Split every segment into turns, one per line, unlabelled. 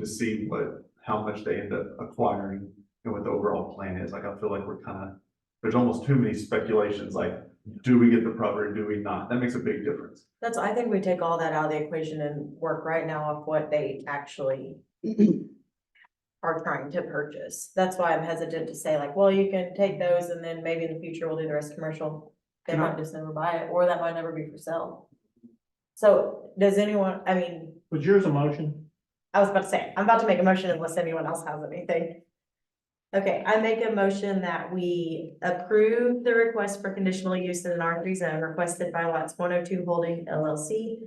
to see what, how much they end up acquiring and what the overall plan is. Like, I feel like we're kind of, there's almost too many speculations, like, do we get the property, do we not? That makes a big difference.
That's, I think we take all that out of the equation and work right now off what they actually are trying to purchase. That's why I'm hesitant to say like, well, you can take those and then maybe in the future we'll do the rest commercial. They might just never buy it, or that might never be for sale. So does anyone, I mean,
Was yours a motion?
I was about to say, I'm about to make a motion unless anyone else has anything. Okay, I make a motion that we approve the request for conditional use in an R three zone requested by lots one oh two holding LLC.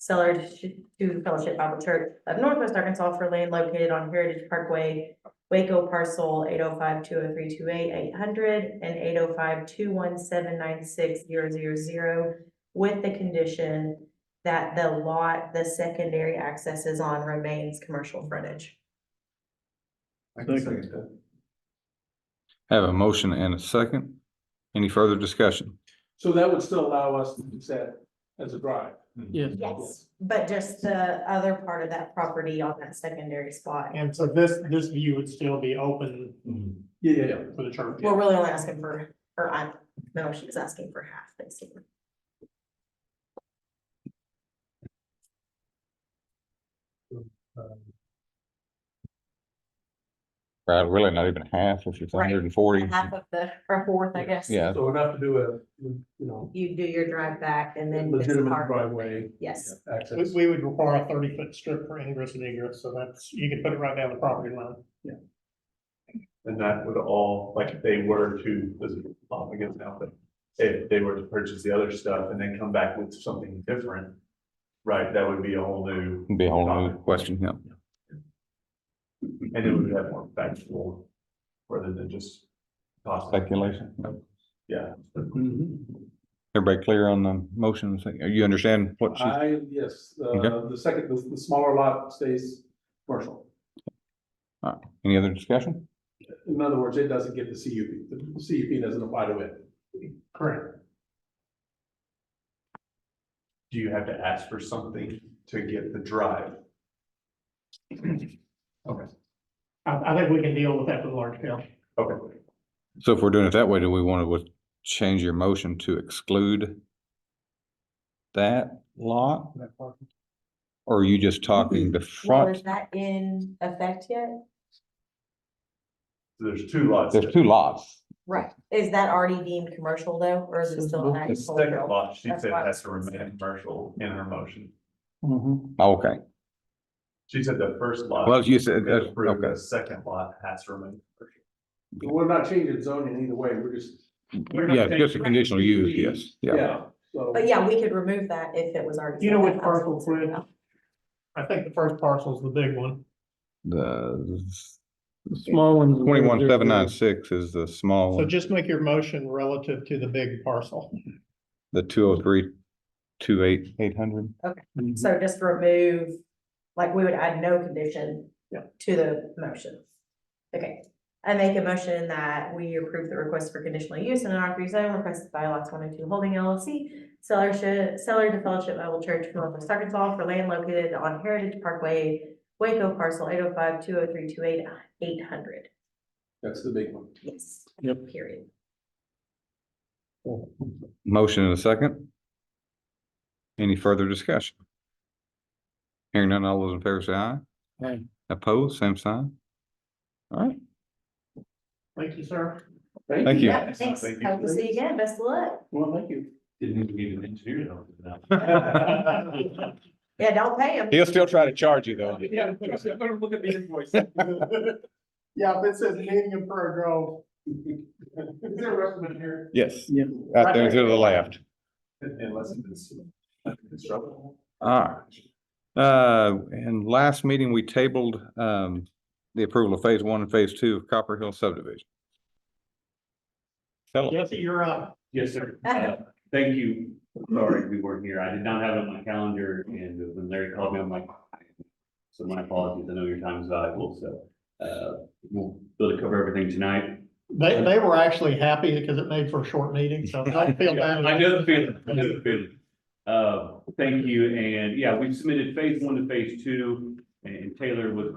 Seller to Fellowship Bible Church of Northwest Arkansas for land located on Heritage Parkway. Waco parcel 805-20328-800 and 805-217-96000, With the condition that the lot, the secondary access is on remains commercial frontage.
I can
Second.
second that.
Have a motion and a second. Any further discussion?
So that would still allow us to use that as a drive.
Yes.
Yes. But just the other part of that property on that secondary spot.
And so this, this view would still be open
Mm-hmm.
Yeah, yeah, yeah.
for the church.
We're really only asking for, or I'm, no, she was asking for half, basically.
Right, really not even half, if it's
Right.
hundred and forty.
Half of the, or a fourth, I guess.
Yeah,
So enough to do a, you know,
You do your drive back and then. this
legitimate
part-
driveway
Yes,
We,
access.
we would require a thirty foot strip for ingress and egress, so that's, you can put it right down the property line.
And that would all, like, if they were to, this is off against now, but if they were to purchase the other stuff and then come back with something different, right, that would be a whole new,
be a whole new question, yeah.
and it would have more factual rather than just cost.
Speculation.
Yeah.
Mm-hmm.
Everybody clear on the motion? You understand what she's,
I, yes, uh,
Okay.
the second, the, the smaller lot stays commercial.
any other discussion?
In other words, it doesn't get the CUP, the CUP doesn't apply to it. Correct.
Do you have to ask for something to get the drive?
I, I think we can deal with that with large scale.
Okay.
So if we're doing it that way, do we want to change your motion to exclude that lot? Or are you just talking the
Mm-hmm. well, is
front?
that in effect yet?
There's two lots.
There's two lots.
Right. Is that already deemed commercial though, or is it still?
The second
agricultural?
lot, she
That's
said
why I
has to
was
remain commercial in her motion.
Okay,
She said the first lot.
well, you said,
is
uh,
approved,
okay.
The second lot has to remain. commercial.
We're not changing zoning either way, we're just. we're not
Yeah, just a
changing-
conditional use, yes, yeah.
Yeah, so.
But yeah, we could remove that if it was already.
You know
said
which
that was-
parcel we're in? I think the first parcel is the big one.
The
Small ones.
twenty-one, seven, nine, six is the small
So
one,
just make your motion relative to the big parcel.
the two oh three, two eight, eight hundred.
So just remove, like, we would add no condition.
Yeah.
To the motion. Okay, I make a motion that we approve the request for conditional use in an R three zone requested by lots one and two holding LLC. Seller should, seller to Fellowship Bible Church of Northwest Arkansas for land located on Heritage Parkway, Waco parcel eight oh five two oh three two eight eight hundred.
That's the big one.
Yes.
Yep.
Period.
Motion and a second. Any further discussion? Hearing none, all those in favor say aye.
Aye.
Opposed, same sign. All right,
Thank you, sir.
Thank you.
Yeah, thanks.
Thank you.
Hope to see you again. Best of luck.
Well, thank you.
Didn't need an engineer to help with
Yeah,
Yeah, don't pay him.
he'll still try to charge you though.
I'm gonna look at the invoice.
Yeah, but it says meeting in Prairie Grove. Is there a recommend here?
Yes,
Yeah.
out there to the left.
that. Unless it's constructible.
All right. Uh, and last meeting, we tabled, um, the approval of phase one and phase two of Copper Hill subdivision. Tell us.
Jesse, you're up.
Yes, sir. Uh, Thank you. Sorry, we weren't here. I did not have it on my calendar and when Larry called me, I'm like. So my apologies. I know your time is valuable, so uh, we'll be able to cover everything tonight.
They, they were actually happy because it made for a short meeting, so don't feel bad.
I know the feeling, I know the feeling. Uh, thank you. And yeah, we've submitted phase one to phase two and Taylor with